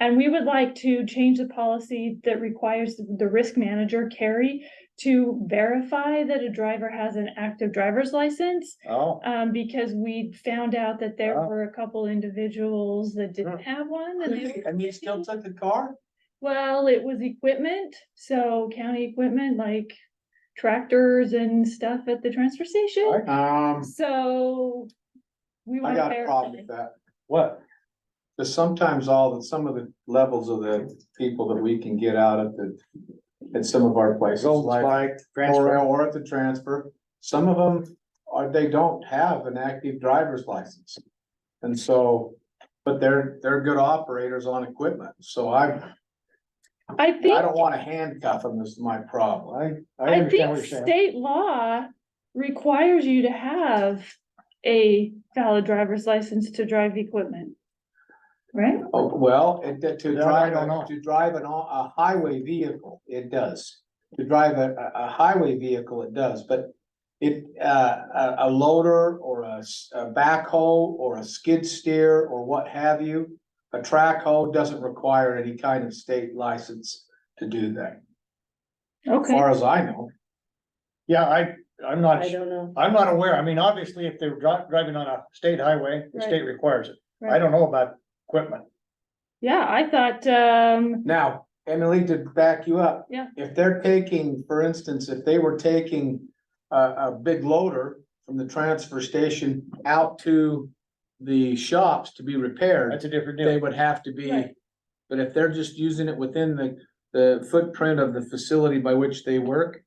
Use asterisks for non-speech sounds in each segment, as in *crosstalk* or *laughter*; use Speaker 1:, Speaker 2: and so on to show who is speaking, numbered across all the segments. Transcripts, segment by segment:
Speaker 1: And we would like to change the policy that requires the risk manager, Carrie, to verify that a driver has an active driver's license.
Speaker 2: Oh,
Speaker 1: Um, because we found out that there
Speaker 2: Wow.
Speaker 1: were a couple individuals that didn't have one. and they were-
Speaker 2: and you still took the car?
Speaker 1: Well, it was equipment, so county equipment like tractors and stuff at the transfer station.
Speaker 3: Um,
Speaker 1: So. We
Speaker 3: I
Speaker 1: want to
Speaker 3: got a problem
Speaker 1: verify.
Speaker 3: with that,
Speaker 2: What?
Speaker 3: because sometimes all, the some of the levels of the people that we can get out at the. At some of our places,
Speaker 2: Gold
Speaker 3: like,
Speaker 2: spike,
Speaker 3: or,
Speaker 2: transfer.
Speaker 3: or at the transfer, some of them are, they don't have an active driver's license. And so, but they're, they're good operators on equipment, so I,
Speaker 1: I
Speaker 3: I
Speaker 1: think,
Speaker 3: don't wanna handcuff them, is my problem.
Speaker 2: I, I
Speaker 1: I
Speaker 2: understand what
Speaker 1: think
Speaker 2: you're saying.
Speaker 1: state law requires you to have a valid driver's license to drive equipment. Right?
Speaker 3: Oh, Well, it, to
Speaker 2: Yeah, I
Speaker 3: drive,
Speaker 2: don't know.
Speaker 3: a- to drive an, au- a highway vehicle, it does. To drive a, a, a highway vehicle, it does, but it, uh, a, a loader or a, s- a backhoe or a skid steer or what have you, a track hoe doesn't require any kind of state license to do that, as
Speaker 1: Okay,
Speaker 3: far as I know.
Speaker 2: Yeah, I, I'm not,
Speaker 4: I don't know.
Speaker 2: I'm not aware. I mean, obviously, if they're dri- driving on a state highway, the
Speaker 1: Right.
Speaker 2: state requires it. I
Speaker 1: Right.
Speaker 2: don't know about equipment.
Speaker 1: yeah, I thought, um,
Speaker 3: Now, Emily, to back you up.
Speaker 1: Yeah.
Speaker 3: If they're taking, for instance, if they were taking a, a big loader from the transfer station out to the shops to be repaired,
Speaker 2: That's a different
Speaker 3: they
Speaker 2: deal.
Speaker 3: would have to be,
Speaker 1: Right.
Speaker 3: but if they're just using it within the, the footprint of the facility by which they work,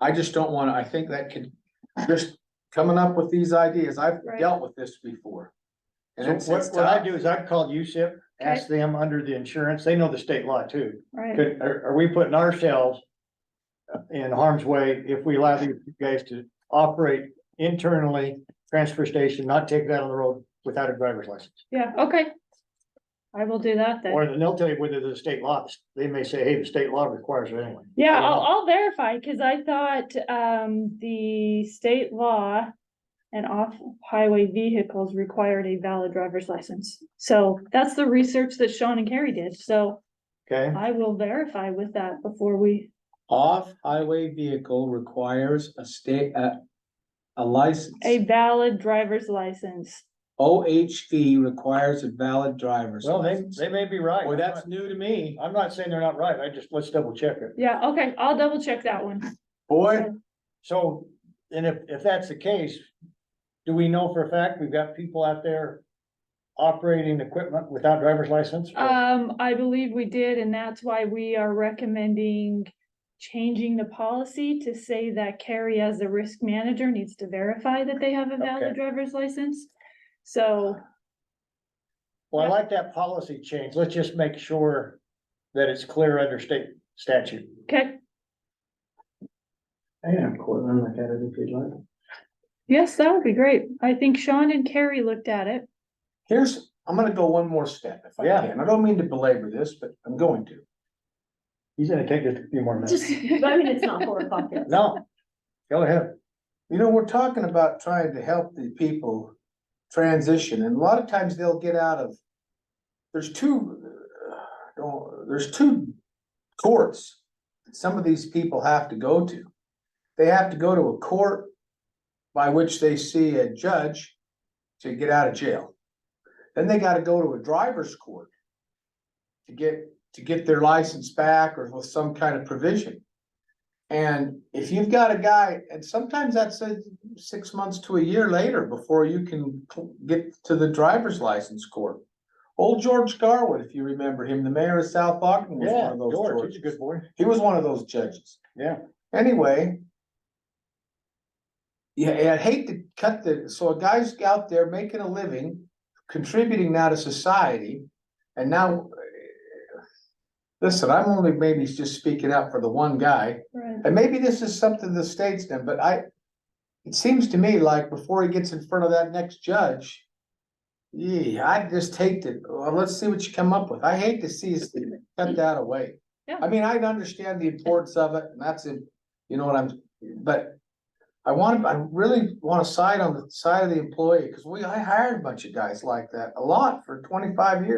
Speaker 3: I just don't wanna, I think that could, just coming up with these ideas, I've
Speaker 1: Right.
Speaker 3: dealt with this before. And
Speaker 2: So
Speaker 3: it's-
Speaker 2: what,
Speaker 3: it's
Speaker 2: what I
Speaker 3: tough.
Speaker 2: do is I've called USIP, ask them under the insurance, they know the state law too.
Speaker 1: right,
Speaker 2: Could, are, are we putting ourselves uh, in harm's way if we allow these guys to operate internally, transfer station, not take that on the road without a driver's license?
Speaker 1: yeah, okay. I will do that then.
Speaker 2: Or then they'll tell you whether the state law, they may say, hey, the state law requires it anyway.
Speaker 1: Yeah,
Speaker 2: I don't
Speaker 1: I'll,
Speaker 2: know.
Speaker 1: I'll verify, cause I thought, um, the state law and off-highway vehicles required a valid driver's license. So that's the research that Sean and Carrie did, so
Speaker 2: Okay,
Speaker 1: I will verify with that before we,
Speaker 3: Off-highway vehicle requires a state, a, a license.
Speaker 1: a valid driver's license.
Speaker 3: OHV requires a valid driver's
Speaker 2: well, they,
Speaker 3: license.
Speaker 2: they may be right.
Speaker 3: Boy, that's new to me.
Speaker 2: I'm not saying they're not right, I just, let's double check it.
Speaker 1: Yeah, okay, I'll double check that one.
Speaker 3: Boy,
Speaker 2: So, and if, if that's the case, do we know for a fact we've got people out there operating equipment without driver's license? or-
Speaker 1: Um, I believe we did, and that's why we are recommending changing the policy to say that Carrie as the risk manager needs to verify that they have a valid
Speaker 2: Okay.
Speaker 1: driver's license. So,
Speaker 2: Well, I like that policy change, let's just make sure that it's clear under state statute.
Speaker 1: okay,
Speaker 3: I have Cortland look at it if you'd like.
Speaker 1: yes, that would be great. I think Sean and Carrie looked at it.
Speaker 3: Here's, I'm gonna go one more step if I
Speaker 2: Yeah.
Speaker 3: can. I don't mean to belabor this, but I'm going to.
Speaker 2: He's gonna take just a few more minutes.
Speaker 4: I
Speaker 1: *laughs*
Speaker 4: mean, it's not four o'clock yet.
Speaker 2: No, go ahead.
Speaker 3: You know, we're talking about trying to help the people transition and a lot of times they'll get out of. There's two, uh, don't- there's two courts that some of these people have to go to. They have to go to a court by which they see a judge to get out of jail. Then they gotta go to a driver's court to get, to get their license back or with some kind of provision. And if you've got a guy, and sometimes that's a six months to a year later before you can cl- get to the driver's license court. Old George Garwood, if you remember him, the mayor of South Ogden was one
Speaker 2: Yeah,
Speaker 3: of those.
Speaker 2: George, he's a
Speaker 3: Georges.
Speaker 2: good boy.
Speaker 3: He was one of those judges.
Speaker 2: Yeah.
Speaker 3: Anyway. Yeah, and I'd hate to cut the, so a guy's out there making a living, contributing now to society, and now. eh, Listen, I'm only maybe just speaking out for the one guy,
Speaker 1: Right.
Speaker 3: and maybe this is something the state's done, but I. It seems to me like before he gets in front of that next judge. Yeah, I just hate to, well, let's see what you come up with. I hate to see us cut that away.
Speaker 1: Yeah.
Speaker 3: I mean, I understand the importance of it and that's it, you know what I'm, but. I want, I really wanna side on the side of the employee, cause we, I hired a bunch of guys like that, a lot for twenty-five years.